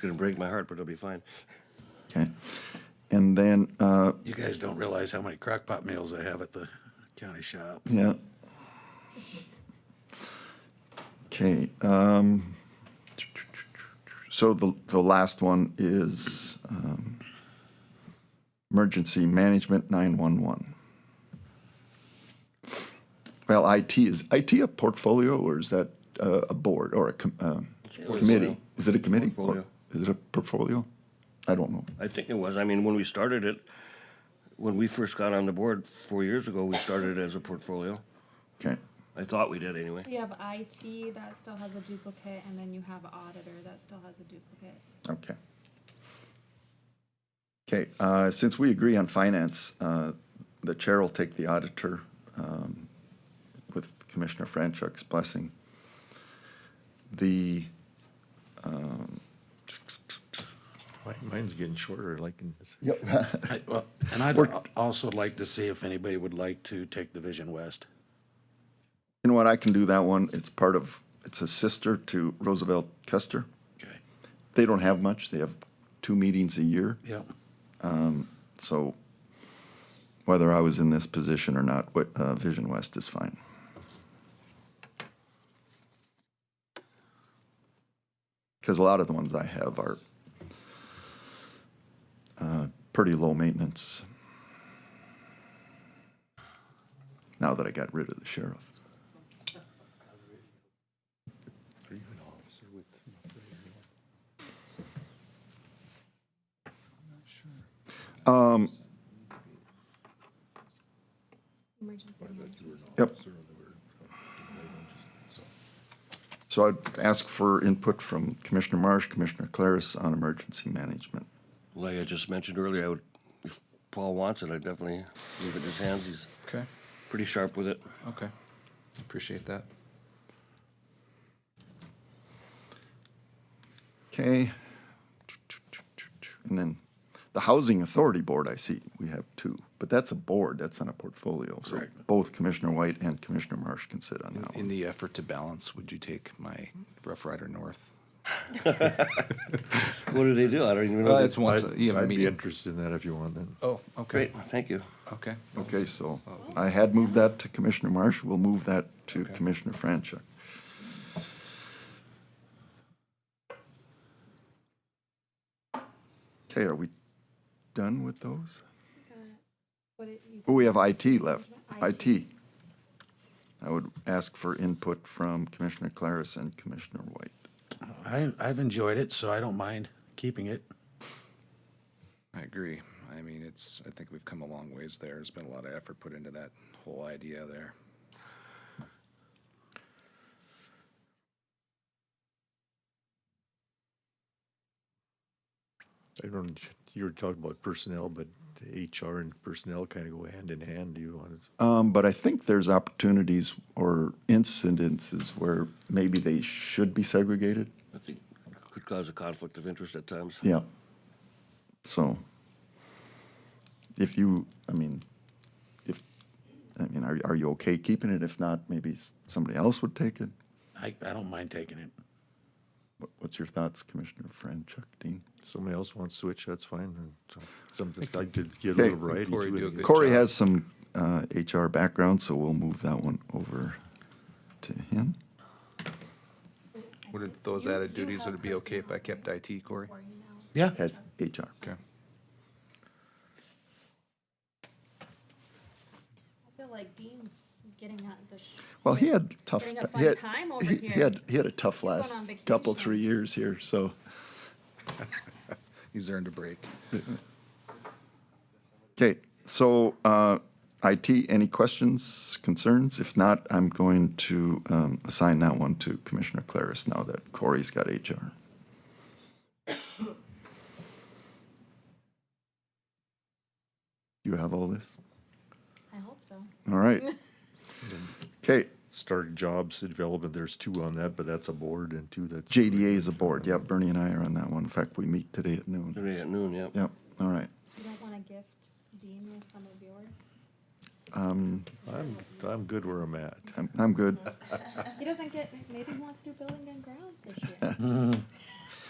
going to break my heart, but it'll be fine. Okay. And then, uh, You guys don't realize how many crock pot meals I have at the county shop. yeah. Okay, um, so the, the last one is, um, emergency management nine-one-one. Well, IT is, IT a portfolio or is that, uh, a board or a com- uh, portfolio. committee? Is it a committee? or Portfolio. Is it a portfolio? I don't know. I think it was. I mean, when we started it, when we first got on the board four years ago, we started it as a portfolio. Okay, I thought we did anyway. You have IT that still has a duplicate, and then you have auditor that still has a duplicate. okay. Okay, uh, since we agree on finance, uh, the chair will take the auditor um, with Commissioner Franchuk's blessing. The, Mine- Mine's getting shorter, like, in this- I- well, And I'd al- also like to see if anybody would like to take the Vision West. you know what, I can do that one. It's part of, it's a sister to Roosevelt Custer. Okay. They don't have much. They have two meetings a year. Yep. So whether I was in this position or not, what, uh, Vision West is fine. Because a lot of the ones I have are uh, pretty low maintenance. Now that I got rid of the sheriff. Um, Emergency management. Yep. So I'd ask for input from Commissioner Marsh, Commissioner Claris on emergency management. Like I just mentioned earlier, I would, if Paul wants it, I'd definitely leave it in his hands. He's Okay, pretty sharp with it. okay. Appreciate that. Okay. And then the Housing Authority Board, I see, we have two, but that's a board, that's not a portfolio. So Correct. both Commissioner White and Commissioner Marsh can sit on that In one. the effort to balance, would you take my Rough Rider North? What do they do? I don't even know. Well, they- Uh, it's once, I'd- a- you have a I'd be meeting. interested in that if you want, then. Oh, okay, Great, thank you. okay. Okay, so I had moved that to Commissioner Marsh, we'll move that to Commissioner Franchuk. Okay, are we done with those? What did you say? Oh, we have IT left, IT. IT. I would ask for input from Commissioner Claris and Commissioner White. I, I've enjoyed it, so I don't mind keeping it. I agree. I mean, it's, I think we've come a long ways there. There's been a lot of effort put into that whole idea there. I don't, you were talking about personnel, but the HR and personnel kind of go hand in hand. Do you want to? Um, but I think there's opportunities or incidences where maybe they should be segregated. I think it could cause a conflict of interest at times. Yeah. So if you, I mean, if, I mean, are, are you okay keeping it? If not, maybe s- somebody else would take it. I, I don't mind taking it. What, what's your thoughts, Commissioner Franchuk, Dean? Somebody else wants to switch, that's fine. and so- Something, I did get Okay. a little variety Corey, do to a it. good- Corey job. has some uh, HR background, so we'll move that one over to him. Would it- those You- added you duties, have would it be okay if I personnel kept IT, Corey? or email. Yeah. Has HR. Okay. I feel like Dean's getting out the. sh- Well, he had tough. Having a he had- fun time over he- He here. had, he had a tough going last on couple, vacation. three years here, so. He's earned a break. Okay, so uh, IT, any questions, concerns? If not, I'm going to um, assign that one to Commissioner Claris now that Corey's got HR. You have all this? I hope so. All right. Okay, Start jobs and development, there's two on that, but that's a board and two that's. JDA is a board. Yep, Bernie and I are on that one. In fact, we meet today at noon. Today at noon, yeah. Yep, all right. You don't wanna gift Dean with some of yours? Um, I'm, I'm good where I'm at. I'm, I'm good. He doesn't get, maybe he wants to do building and grounds this year.